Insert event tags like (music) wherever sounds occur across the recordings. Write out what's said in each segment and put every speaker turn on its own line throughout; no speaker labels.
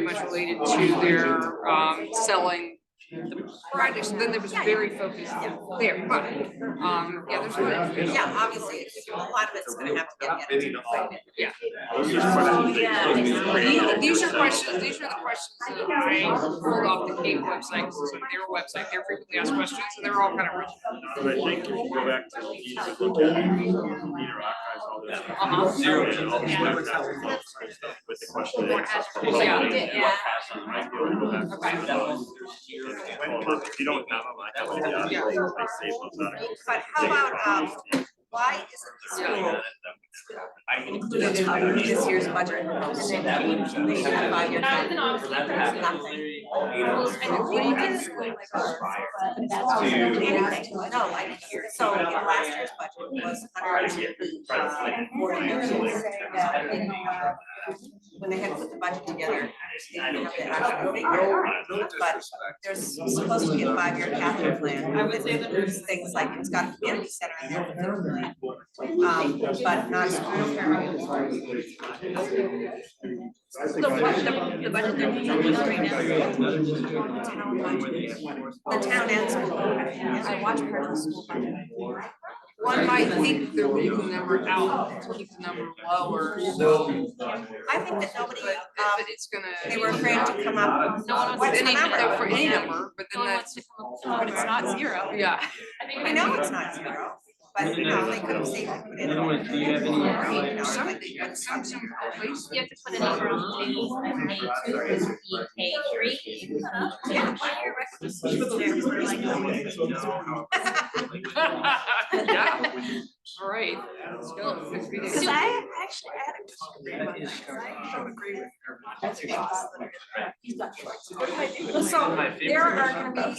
much related to their um selling the products, and then there was very focused there, but um, yeah, there's one.
Yeah, obviously, it's- a lot of it's gonna have to get.
Maybe not.
edited. Oh,
These- These are questions, these are the questions that I pulled off the Cape website, 'cause it's on their website, they're frequently asked questions, and they're all kind of written.
But I think if you go back to the deeds and look at it, Peter archives all this.
Uh-huh.
Zero.
And all the records and stuff With the question and answers.
Yeah.
Yeah.
You might be able to go back to
Okay.
some of those. Well, If you don't have them, I have them, yeah, I save those articles.
But how about, um, why isn't the school included in this year's budget? And then we- we should have five year plan. Nothing. Anything. No, I didn't hear. So in last year's budget was hundred and uh, forty million. Uh, When they had put the budget together, they didn't have the actual figure. But there's supposed to be a five-year capital plan. I would say that there's things like it's got a community center in there. for 50 million, Um, but not.
The budget, the budget they're doing right now.
The town and school. I watch part of the school.
One might think they're leaving the number out, to keep the number lower,
I think that nobody,
but,
um,
but it's gonna.
they were afraid to come up.
No one wants
What's
They
the
need to go for
number?
any number, but then
No one
that's,
wants to come up, but it's not zero.
yeah.
I know it's not zero, but you know, they could have safely put in.
Anyone, do you have any-
You know,
Some
like-
of the, but some, some places.
You have to put a number on the table, K two, K three. Yeah.
Yeah, all right, let's go. Next meeting.
Cause I actually, I had a
Well, so there are gonna be, um,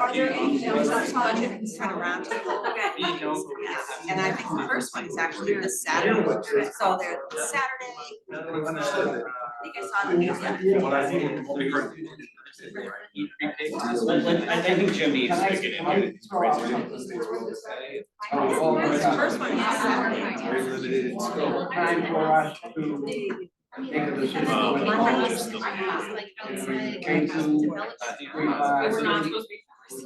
are there any films on budget that's kind of round? Yeah, and I think the first one is actually this Saturday, so they're this Saturday, I think I saw the news yesterday.
I think Jim needs to get in here.
The first one is Saturday.
We were not supposed to be.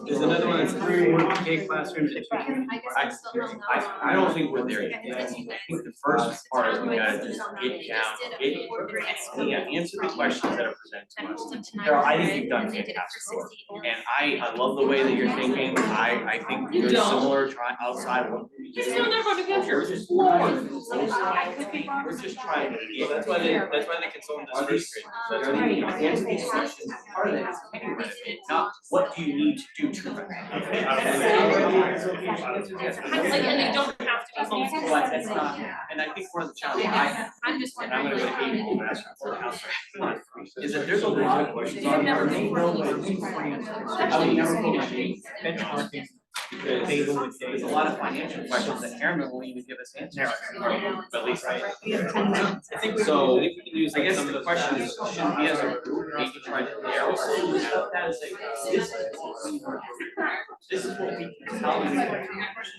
There's another one, that's three, K classrooms.
I guess I'm still not.
I, I don't think we're there yet. I think the first part, we gotta just get down, get, yeah, answer the questions that are presented to us. Carol, I think you've done fantastic work. And I, I love the way that you're thinking. I, I think you're
don't.
similar, try, outside of what. we
Just
do.
know they're gonna go
We're just-
I could be wrong.
We're just trying to get.
That's why they, that's why they consulted us first grade.
um,
Answer these questions, part of that is not what do you need to do (laughs) to prevent. it?
Like, and they don't have to be
But that's
homeschooled.
not, and I think one of the challenges I,
I'm just
and I'm
wondering.
gonna go to
like,
Amy (laughs) and ask her for an answer, is that there's a lot of questions.
They've never
on-
been
I would never be mentioning benchmarking, because there's a lot of financial questions that Aaron will even give us answers. to, At least I.
I think we,
So,
I think we can use
I
like
guess
some of
the
those.
question is, should we as a group maybe try to narrow some of that and say, this is what we want. This is what we can tell you.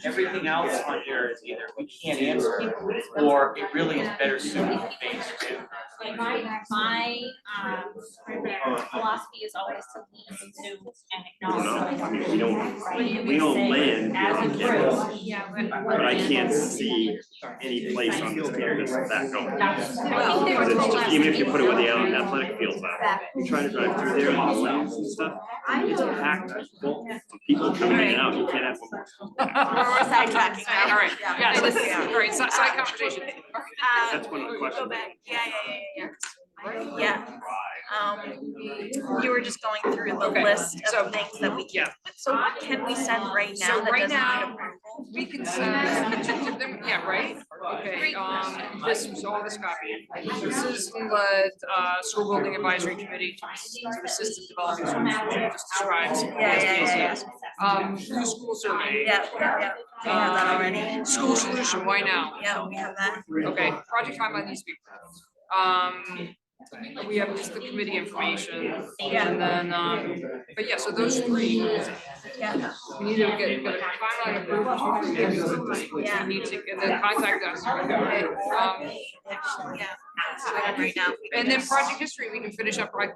Everything else on here is either we can't answer or it really is better suited for phase two.
Like my, my, um, philosophy is always to listen to and acknowledge.
No, I mean,
something.
we don't,
What do you
we don't
say
land
As
on
a
campus.
group, yeah.
But I can't see any place on this campus that going.
That's, I think they were told last.
Even if you
week.
put it where the athletic fields are, you try to drive through there and the lanes and stuff, it's packed full of people coming in and out, you can't have one more.
We're sidetracking now.
All right,
Yeah.
yeah, so this is, all right, si- side conversation.
That's one of the questions.
Yeah, yeah, yeah, yeah, yeah. Um, you were just going through the
Okay.
list
So-
of things that we can, so can we send right
So
now that
right
doesn't
now-
need approval?
We can send, yeah, right? Okay, um, this was all this copy. This is from the, uh, school building advisory committee to assist in developing school culture, just describes.
Yeah, yeah, yeah, yeah.
Um, new school survey.
Yeah, yeah, we have that already.
um, School solution, why now?
Yeah, we have that.
Okay, project timeline needs to be. Um, we have just the committee information and then, um, but yeah, so those three.
Yeah.
We need to get, get a timeline approved, we need to-
Yeah.
we need to, and then contact us.
Okay.
Um,
Actually, yeah. Right now.
and then project history, we can finish up right